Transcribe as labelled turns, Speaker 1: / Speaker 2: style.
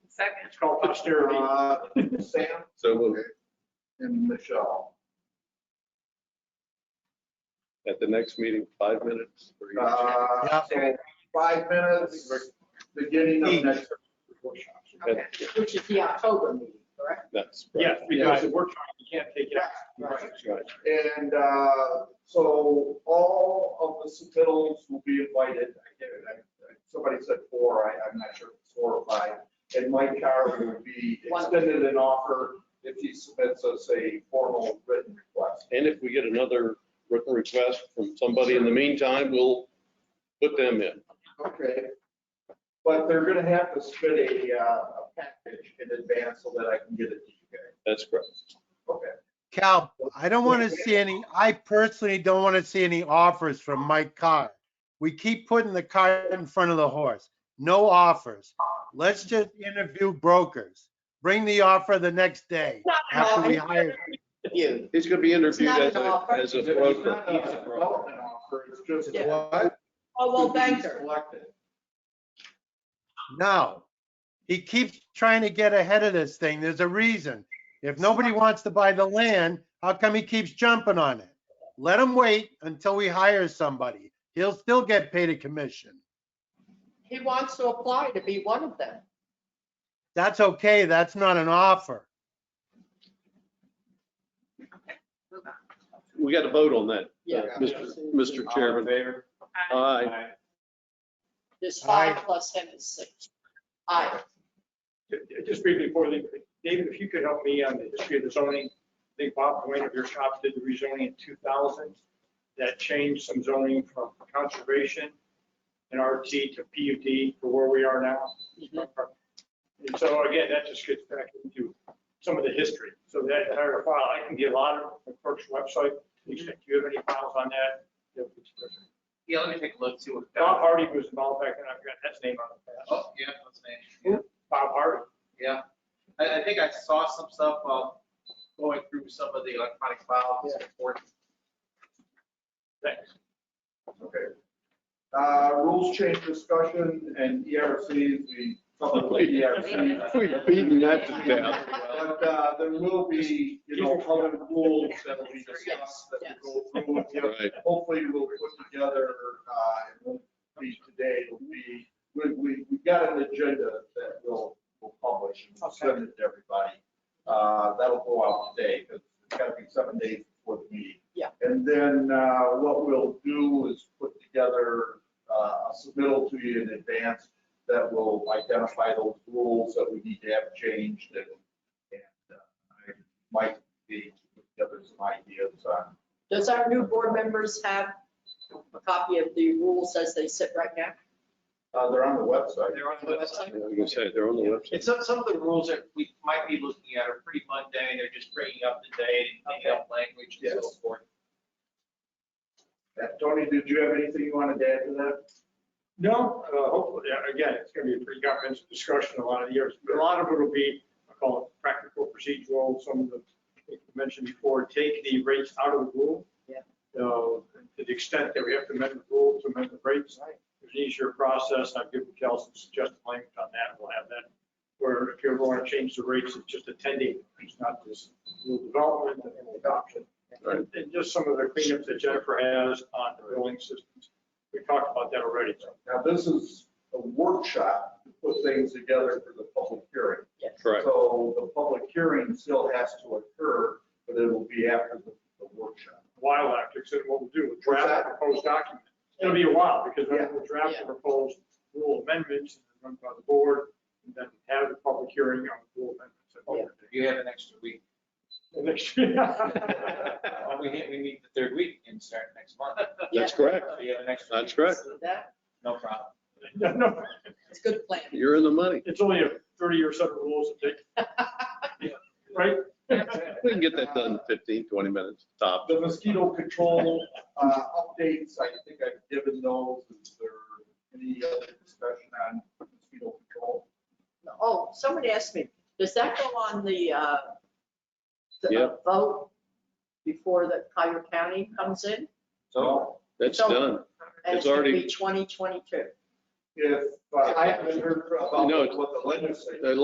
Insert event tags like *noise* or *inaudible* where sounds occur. Speaker 1: Second.
Speaker 2: It's called posterity.
Speaker 3: Uh, Sam
Speaker 4: So moved.
Speaker 3: and Michelle.
Speaker 4: at the next meeting, five minutes for each.
Speaker 3: Uh, Five minutes, beginning of next.
Speaker 1: Okay.
Speaker 5: Which is the October meeting, correct?
Speaker 4: That's right.
Speaker 2: Yes, because it works, you can't take it. out.
Speaker 4: That's right.
Speaker 3: And uh, so all of the submittals will be invited. I get it. I- I- Somebody said four, I, I'm not sure if it's four or five. And Mike Carver would be
Speaker 5: One.
Speaker 3: extended an offer if he submits us a formal written request.
Speaker 4: And if we get another written request from somebody in the meantime, we'll put them in.
Speaker 3: Okay. But they're gonna have to submit a, uh, a package in advance so that I can get it to you guys.
Speaker 4: That's correct.
Speaker 3: Okay.
Speaker 6: Cal, I don't want to see any, I personally don't want to see any offers from Mike Carr. We keep putting the cart in front of the horse. No offers. Let's just interview brokers. Bring the offer the next day
Speaker 5: Not at all.
Speaker 6: after we hire.
Speaker 5: You.
Speaker 4: He's going to be interviewed as
Speaker 5: It's not an
Speaker 4: a,
Speaker 5: offer.
Speaker 4: as a
Speaker 3: It's not a
Speaker 4: broker.
Speaker 3: development offer, it's just.
Speaker 5: Yeah.
Speaker 6: What?
Speaker 5: Oh, well,
Speaker 3: Who's being
Speaker 5: banker.
Speaker 3: Selected.
Speaker 6: No. He keeps trying to get ahead of this thing. There's a reason. If nobody wants to buy the land, how come he keeps jumping on it? Let him wait until we hire somebody. He'll still get paid a commission.
Speaker 5: He wants to apply to be one of them.
Speaker 6: That's okay. That's not an offer.
Speaker 1: Move on.
Speaker 4: We got to vote on that.
Speaker 5: Yeah.
Speaker 4: Uh, Mr. Mr.
Speaker 3: Uh,
Speaker 4: Chairman.
Speaker 1: Aye.
Speaker 4: Aye.
Speaker 5: There's
Speaker 6: Aye.
Speaker 5: five plus him is six. Aye.
Speaker 2: Just briefly before, the- David, if you could help me on the history of the zoning. I think Bob Wayne of your shop did the rezoning in 2000. That changed some zoning from conservation and RT to PUD for where we are now.
Speaker 7: Mm-hmm.
Speaker 2: And so again, that just gets back into some of the history. So that entire file, I can get a lot of the clerk's website. Do you have any files on that?
Speaker 7: Yeah, let me take a look, see what.
Speaker 2: Bob Hardy was involved back then. I forgot his name on the past.
Speaker 7: Oh, yeah, that's me.
Speaker 2: Bob Hardy.
Speaker 7: Yeah, I, I think I saw some stuff while going through some of the electronic files before.
Speaker 2: Thanks.
Speaker 3: Okay. Uh, rules change discussion and ERCs, we covered with ERCs.
Speaker 4: *laughs* We've beaten that to death.
Speaker 3: But, uh, there will be, you know, other rules that we discuss that we go through. with you.
Speaker 4: Right.
Speaker 3: Hopefully we'll put together, uh, it won't be today, it'll be, we, we, we've got an agenda that we'll, we'll publish and we'll send it to everybody. Uh, that'll go out today, because it's gotta be seven days before the meeting.
Speaker 5: Yeah.
Speaker 3: And then, uh, what we'll do is put together, uh, a submittal to you in advance that will identify those rules that we need to have changed and, and, uh, I might be, put together some ideas on.
Speaker 5: Does our new board members have a copy of the rules as they sit right now?
Speaker 3: Uh, they're on the website.
Speaker 7: They're on the
Speaker 4: I
Speaker 7: website.
Speaker 4: was going to say, they're on the website.
Speaker 7: And some, some of the rules that we might be looking at are pretty mundane, they're just bringing up the date and cleaning up language and so
Speaker 3: Yes.
Speaker 7: forth.
Speaker 3: Uh, Tony, did you have anything you wanted to add to that?
Speaker 2: No, uh, hopefully, yeah, again, it's going to be a pretty comprehensive discussion a lot of years, but a lot of it will be, I call it practical procedural, some of the, like you mentioned before, take the rates out of the rule.
Speaker 5: Yeah.
Speaker 2: So, To the extent that we have to amend the rule to amend the rates, it's an easier process, I've given Cal some suggested language on that, we'll have that. Where if you ever want to change the rates, it's just attending, it's not this rule development and adoption.
Speaker 4: Right.
Speaker 2: And just some of the cleanups that Jennifer has on the billing systems, we talked about that already, so.
Speaker 3: Now, this is a workshop to put things together for the public hearing.
Speaker 5: Yes.
Speaker 4: Correct.
Speaker 3: So the public hearing still has to occur, but it will be after the the workshop.
Speaker 2: while after, except what we'll do, we'll draft a proposed document. It'll be a while, because then we'll draft the proposed rule amendments, and run by the board, and then have the public hearing on the rule amendments.
Speaker 7: You have an extra week.
Speaker 2: And next-
Speaker 7: Well, We, hit- we meet the third week and start next month.
Speaker 4: That's correct.
Speaker 7: So You have an extra.
Speaker 4: That's
Speaker 7: week.
Speaker 4: correct.
Speaker 5: That,
Speaker 7: No problem.
Speaker 2: *laughs* No, no,
Speaker 5: it's a good plan.
Speaker 4: You're in the money.
Speaker 2: It's only a 30-year set of rules, that take, right?
Speaker 4: We can get that done in 15, 20 minutes, top.
Speaker 3: The mosquito control uh, updates, I think I've given those. Is there any other discussion on mosquito control?
Speaker 5: Oh, somebody asked me, does that go on the, uh, the uh,
Speaker 4: Yeah.
Speaker 5: vote before the Cuyahoga County comes in?
Speaker 3: So
Speaker 4: That's
Speaker 5: So-
Speaker 4: done.
Speaker 5: And
Speaker 4: It's
Speaker 5: it's gonna
Speaker 4: already-
Speaker 5: be 2022.
Speaker 3: if, uh, I haven't heard about
Speaker 4: No, it's-
Speaker 3: what the legislature.
Speaker 4: Uh,